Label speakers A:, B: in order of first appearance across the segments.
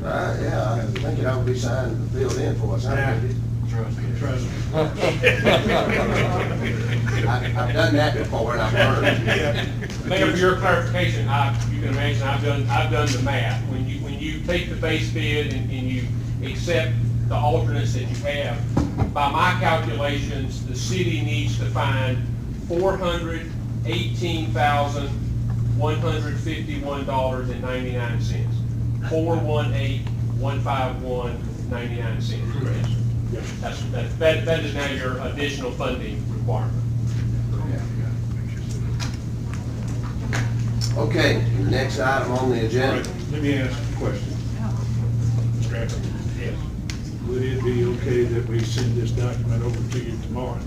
A: Right, Uh, yeah, I think it ought to be signed, and filled in for us. I did it.
B: Trust me.
C: Trust me.
A: I- I've done that before and I've learned.
D: Mayor, for your clarification, I, you can imagine, I've done, I've done the math. When you, when you take the base bid and, and you accept the alternates that you have, by my calculations, the city needs to find four hundred eighteen thousand, one hundred fifty-one dollars and ninety-nine cents. Four one eight, one five one, ninety-nine cents. That's, that, that, that is now your additional funding requirement.
A: Okay, the next item on the
C: All
A: agenda.
C: right, Let me ask a question. Scrap it.
D: Yes.
C: Would it be okay that we send this document over to you tomorrow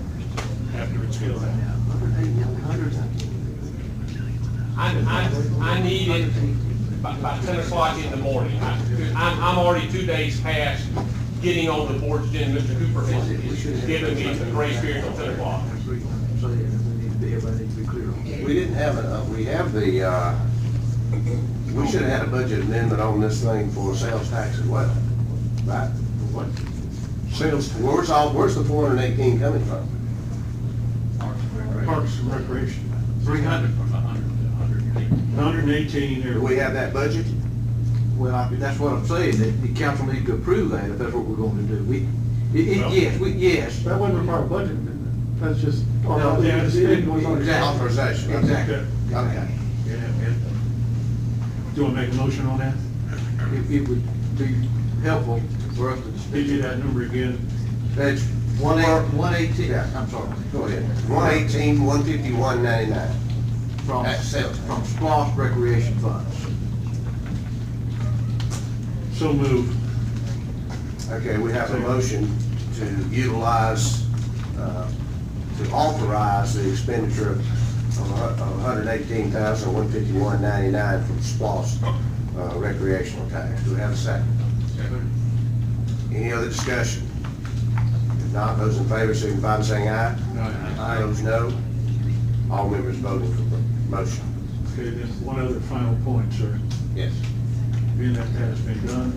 C: after it's filled out?
D: I, I, I need it by, by ten o'clock in the morning. I, I'm, I'm already two days past getting on the board's agenda. Mr. Cooper has, has given me the grace period until ten o'clock.
A: We didn't have, a- uh, we have the, uh, we should have had a budget amendment on this thing for sales tax as well, right? What? Sales, where's all, where's the four hundred and eighteen coming from?
C: Parks and Recreation.
E: Three hundred from a hundred to a hundred and eighty.
C: 118 there.
A: Do we have that budget?
F: Well, I- that's what I'm saying, that the council needs to approve that, if that's what we're going to do. We, it, it,
C: Well-
F: yes, we, yes.
G: That wasn't require a budget amendment, that's just.
C: No, yeah, it's-
G: It was on the-
F: Exactly.
A: Authorization.
F: Exactly.
A: Okay.
C: Yeah, yeah. Do you want to make a motion on that?
F: It, it would be helpful for us to
C: Give you
F: speak.
C: that number again.
F: That's one eight, one eighteen,
A: Yeah.
F: I'm sorry.
A: Go ahead. One eighteen, one fifty-one, ninety-nine.
F: From,
A: That's sales tax.
F: from SPOS recreation funds.
C: So moved.
A: Okay, we have a motion to utilize, uh, to authorize the expenditure of $118,151.99 from SPOS uh, recreational tax. Do we have a second? Any other discussion? If not, those in favor signify by saying aye. Aye. Those no. All members voting for the motion.
C: Okay, then one other final point, sir.
A: Yes.
C: Being that that has been done,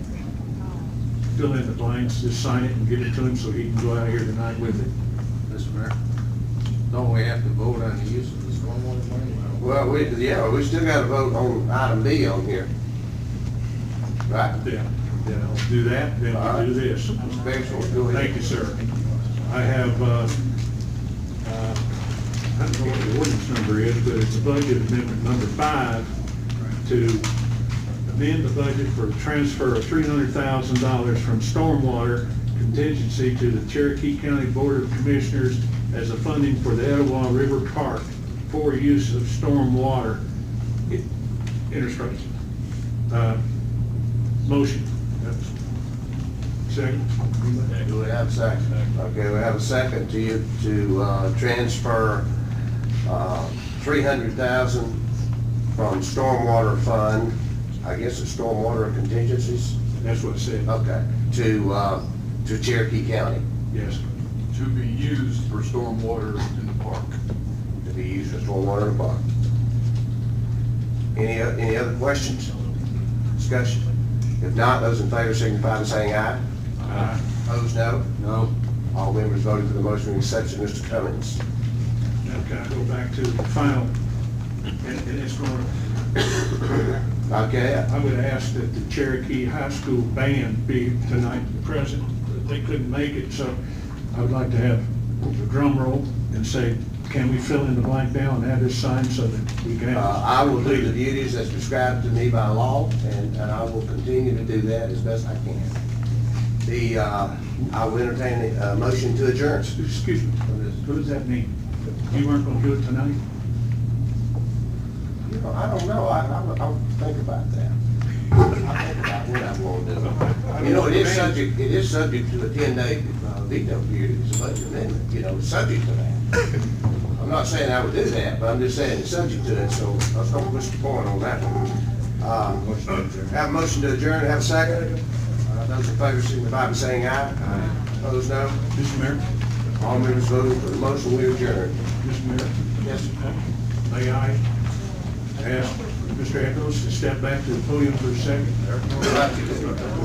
C: fill in the blanks, just sign it and give it to him so he can go out here tonight with it.
E: Mr. Mayor, don't we have to vote on the use of the stormwater money?
A: Well, we, yeah, we still got to vote on item B on here. Right?
C: Yeah, then I'll do that, then I'll do this.
A: Mr. Biggs, go ahead.
C: Thank you, sir. I have, uh, uh, I don't know what the ordinance number is, but it's a budget amendment number five to amend the budget for transfer of three hundred thousand dollars from stormwater contingency to the Cherokee County Board of Commissioners as a funding for the Etowah River Park for use of stormwater i- infrastructure. Uh, Motion. That's- Second.
A: Do we have a second? Okay, we have a second to you, to uh, transfer uh, 300,000 from stormwater fund, I guess it's stormwater contingencies,
C: That's what it said,
A: okay, to, uh, to Cherokee County
C: yes.
E: To be used for stormwater in the park.
A: to be used for stormwater and park. Any, o- any other questions? Discussion? If not, those in favor signify by saying aye.
C: Aye.
A: Opposed, no? No. All members voting for the motion with exception of Mr. Cummings.
C: Now can I go back to the final, and and it's going,
A: Okay, uh,
C: I would ask that the Cherokee High School band be tonight present, but they couldn't make it, so I would like to have the drum roll and say, can we fill in the blank now and have this signed so that we can have.
A: Uh, I will do the duties as prescribed to me by law, and, and I will continue to do that as best I can. The, uh, I will entertain a motion to adjourn.
C: Excuse me, what does that mean? You weren't gonna do it tonight?
A: You know, I don't know, I, I, I'll think about that. I'll think about what I'm gonna do. You know, it is subject, it is subject to a ten-day uh, veto period, it's a budget amendment, you know, it's subject to that. I'm not saying I would do that, but I'm just saying it's subject to it, so let's don't push the point on that one. Um, Have a motion to adjourn, have a second. Uh, Those in favor signify by saying aye. Aye. Opposed, no.
C: Mr. Mayor,
A: All members voting for the motion, we adjourn.
C: Mr. Mayor,
A: Yes, sir.
C: may I ask Mr. Echols to step back to the podium for a second?
A: All right.